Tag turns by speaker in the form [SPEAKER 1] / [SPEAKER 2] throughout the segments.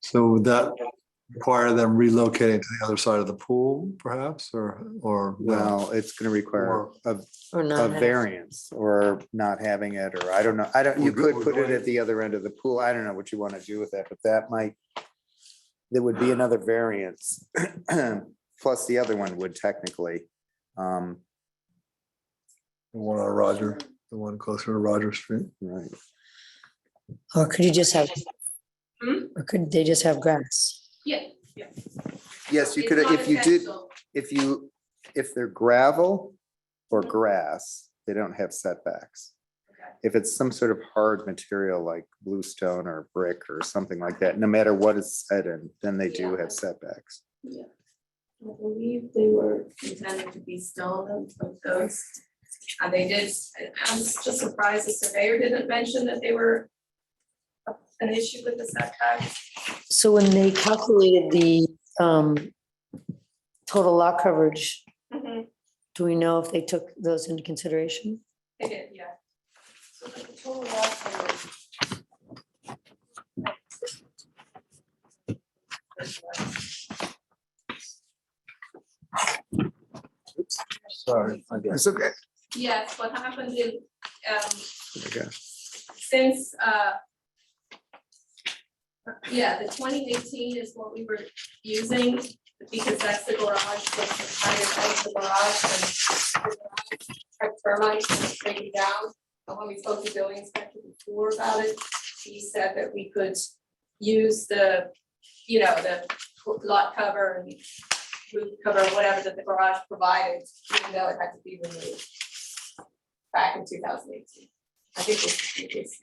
[SPEAKER 1] So would that require them relocating to the other side of the pool perhaps, or, or? no?
[SPEAKER 2] Well, it's gonna require
[SPEAKER 1] Or-
[SPEAKER 2] a,
[SPEAKER 3] Or
[SPEAKER 2] a
[SPEAKER 3] not.
[SPEAKER 2] variance or not having it, or I don't know. I don't, you
[SPEAKER 1] We're go-
[SPEAKER 2] could
[SPEAKER 1] we're
[SPEAKER 2] put it
[SPEAKER 1] going-
[SPEAKER 2] at the other end of the pool. I don't know what you want to do with that, but that might, there would be another variance. Plus the other one would technically. Um,
[SPEAKER 1] The one on Roger, the one closer to Roger Street.
[SPEAKER 2] right.
[SPEAKER 3] Or could you just have,
[SPEAKER 4] Hmm?
[SPEAKER 3] or could they just have grass?
[SPEAKER 4] Yeah.
[SPEAKER 2] Yes, you
[SPEAKER 4] It's
[SPEAKER 2] could,
[SPEAKER 4] not
[SPEAKER 2] if you did,
[SPEAKER 4] essential.
[SPEAKER 2] if you, if they're gravel or
[SPEAKER 4] Mhm.
[SPEAKER 2] grass, they don't have setbacks.
[SPEAKER 4] Okay.
[SPEAKER 2] If it's some sort of hard material like bluestone or brick or something like that, no matter what is set in, then they do
[SPEAKER 4] Yeah.
[SPEAKER 2] have setbacks.
[SPEAKER 4] Yeah. I believe they were intended to be stone of those. And Uh, they did, I- I'm just surprised the surveyor didn't mention that they were a- an issue with the setback.
[SPEAKER 3] So when they calculated the um total lot coverage,
[SPEAKER 4] Mhm,
[SPEAKER 3] do we know if they took those into consideration?
[SPEAKER 4] They did, yeah. So the total lot coverage.
[SPEAKER 1] Sorry. I guess.
[SPEAKER 2] It's okay.
[SPEAKER 4] Yes, what happened is, um,
[SPEAKER 2] Okay.
[SPEAKER 4] since, uh, yeah, the twenty eighteen is what we were using, because that's the garage, that's the higher height of the garage, and the garage had termites and it's breaking down, but when we spoke to building inspector before about it, he said that we could use the, you know, the lot cover and roof cover, whatever that the garage provided, even though it had to be removed back in two thousand eighteen. I think this is, this is,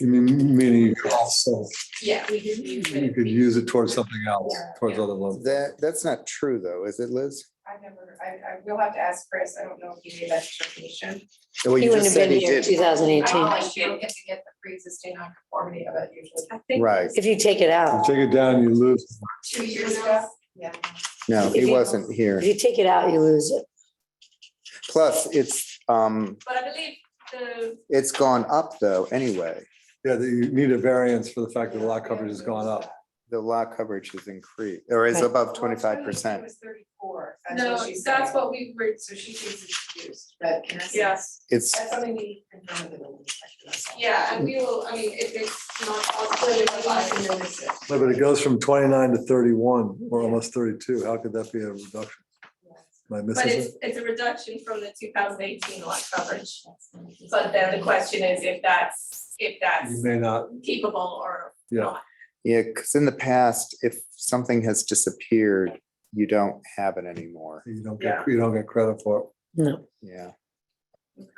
[SPEAKER 1] You mean, meaning you could also,
[SPEAKER 4] yeah, we could use it.
[SPEAKER 1] you could use it towards something else, towards other levels.
[SPEAKER 2] That, that's not true though, is it Liz?
[SPEAKER 4] I never, I, I will have to ask Chris, I don't know if he gave that information.
[SPEAKER 2] Well, you just said he
[SPEAKER 3] Two
[SPEAKER 2] did.
[SPEAKER 3] thousand eighteen.
[SPEAKER 4] I should get to get the pre-existing non-conformity of it usually. I think.
[SPEAKER 2] Right.
[SPEAKER 3] If you take it
[SPEAKER 1] You
[SPEAKER 3] out,
[SPEAKER 1] Take it down, you lose.
[SPEAKER 4] Two years ago. Yeah.
[SPEAKER 2] No,
[SPEAKER 3] If
[SPEAKER 2] he
[SPEAKER 3] you-
[SPEAKER 2] wasn't
[SPEAKER 3] if
[SPEAKER 2] here.
[SPEAKER 3] you take it out, you lose it.
[SPEAKER 2] Plus, it's, um,
[SPEAKER 4] But I believe the,
[SPEAKER 2] it's gone up though, anyway.
[SPEAKER 1] Yeah, that you need a variance for the fact that the lot coverage has gone up.
[SPEAKER 2] The law coverage is increased, or is
[SPEAKER 3] Right.
[SPEAKER 2] above twenty-five percent.
[SPEAKER 5] was thirty-four.
[SPEAKER 4] no, that's what we were,
[SPEAKER 5] So she thinks it's used, but in essence.
[SPEAKER 4] Yes.
[SPEAKER 2] It's,
[SPEAKER 5] That's something we confirm with the building inspector, that's all.
[SPEAKER 4] yeah, and we will, I mean, if it's not possible, we
[SPEAKER 5] But
[SPEAKER 4] would
[SPEAKER 5] we
[SPEAKER 4] like
[SPEAKER 5] have
[SPEAKER 4] to
[SPEAKER 5] to
[SPEAKER 4] know.
[SPEAKER 5] notice it.
[SPEAKER 1] No, But it goes from twenty-nine to thirty-one, or almost thirty-two. How could that be a reduction? Am I
[SPEAKER 4] But
[SPEAKER 1] missing
[SPEAKER 4] it's,
[SPEAKER 1] it?
[SPEAKER 4] it's a reduction from the two thousand eighteen lot coverage. But then the question is if that's, if
[SPEAKER 1] You
[SPEAKER 4] that's
[SPEAKER 1] may not,
[SPEAKER 4] keepable or
[SPEAKER 1] yeah.
[SPEAKER 2] yeah, because in the past, if something has disappeared, you don't have it anymore.
[SPEAKER 1] You don't get, you don't get credit for it.
[SPEAKER 3] No.
[SPEAKER 2] Yeah,
[SPEAKER 4] Okay.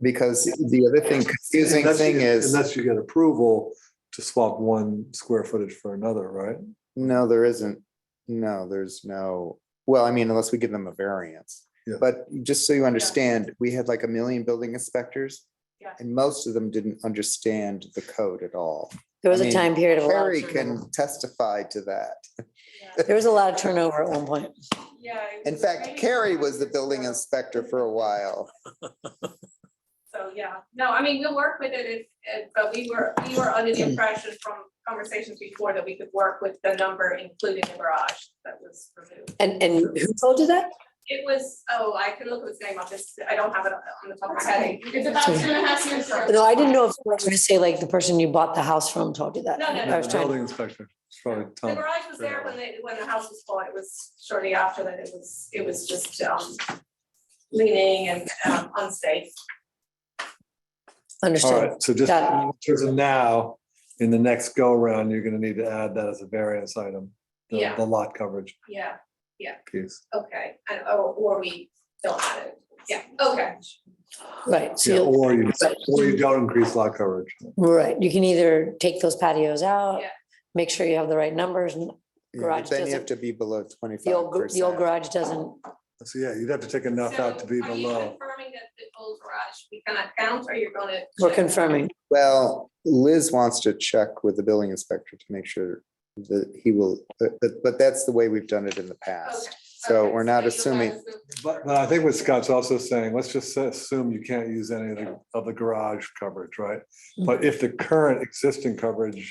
[SPEAKER 2] because the other thing, confusing
[SPEAKER 1] Unless you
[SPEAKER 2] thing
[SPEAKER 1] get-
[SPEAKER 2] is,
[SPEAKER 1] Unless you get approval to swap one square footage for another, right?
[SPEAKER 2] no, there isn't. No, there's no, well, I mean, unless we give them a variance.
[SPEAKER 1] Yeah.
[SPEAKER 2] But just so you understand, we had like a million building inspectors.
[SPEAKER 4] Yeah.
[SPEAKER 2] And most of them didn't understand the code at all.
[SPEAKER 3] There was
[SPEAKER 2] I
[SPEAKER 3] a
[SPEAKER 2] mean,
[SPEAKER 3] time period of a lot
[SPEAKER 2] Harry
[SPEAKER 3] of turnover.
[SPEAKER 2] can testify to that.
[SPEAKER 4] Yeah.
[SPEAKER 3] There was a lot of turnover at one point.
[SPEAKER 4] Yeah. it
[SPEAKER 2] In
[SPEAKER 4] was
[SPEAKER 2] fact,
[SPEAKER 4] really
[SPEAKER 2] Carrie
[SPEAKER 4] hard
[SPEAKER 2] was the
[SPEAKER 4] to
[SPEAKER 2] building
[SPEAKER 4] sort of-
[SPEAKER 2] inspector for a while.
[SPEAKER 4] So, yeah, no, I mean, we'll work with it, if- if- but we were, we were under the impression from conversations before that we could work with the number including the garage that was removed.
[SPEAKER 3] And, and who told you that?
[SPEAKER 4] It was, oh, I can look at its name up, it's, I don't have it on the top of my head. It's about two
[SPEAKER 3] Okay.
[SPEAKER 4] and a half years ago.
[SPEAKER 3] No, I didn't know if you were going to say like the person you bought the house from told you that.
[SPEAKER 4] No, no,
[SPEAKER 3] I
[SPEAKER 4] no,
[SPEAKER 3] was
[SPEAKER 1] The
[SPEAKER 3] trying-
[SPEAKER 1] Building inspector, it's probably
[SPEAKER 4] The
[SPEAKER 1] Tom.
[SPEAKER 4] garage was there when they, when the house was bought, it was shortly after that, it was, it was just, um, leaning and, um, unsafe.
[SPEAKER 1] All
[SPEAKER 3] Understood.
[SPEAKER 1] right, so just
[SPEAKER 3] Got
[SPEAKER 1] in terms of now, in the next go around, you're gonna need to add that as a variance item. the-
[SPEAKER 4] Yeah.
[SPEAKER 1] The lot coverage
[SPEAKER 4] Yeah,
[SPEAKER 1] piece.
[SPEAKER 4] okay, and, or, or we don't have it, yeah, okay.
[SPEAKER 3] Right. So
[SPEAKER 1] Yeah,
[SPEAKER 3] you'll-
[SPEAKER 1] Or you, or you don't increase lot coverage.
[SPEAKER 3] Right, you can either take those patios out,
[SPEAKER 4] Yeah.
[SPEAKER 3] make sure you have the right numbers, and
[SPEAKER 2] Yeah,
[SPEAKER 3] Garage
[SPEAKER 2] but Then you
[SPEAKER 3] doesn't-
[SPEAKER 2] have to be below
[SPEAKER 3] the
[SPEAKER 2] twenty-five
[SPEAKER 3] old, gar- the old
[SPEAKER 2] percent.
[SPEAKER 3] garage doesn't,
[SPEAKER 1] So yeah, you'd have to take enough out to be
[SPEAKER 4] So, Are you
[SPEAKER 1] below.
[SPEAKER 4] confirming that the old garage, we cannot count, or you're gonna?
[SPEAKER 3] we're confirming.
[SPEAKER 2] Well, Liz wants to check with the building inspector to make sure that he will, but, but- but that's the way we've done it in the past.
[SPEAKER 4] Okay,
[SPEAKER 2] So
[SPEAKER 4] okay,
[SPEAKER 2] we're not
[SPEAKER 4] you'll
[SPEAKER 2] assuming,
[SPEAKER 4] guys will-
[SPEAKER 1] But, but I think what Scott's also saying, let's just assume
[SPEAKER 3] Mm-hmm.
[SPEAKER 1] you can't use any of the, of the garage coverage, right? But if the current existing coverage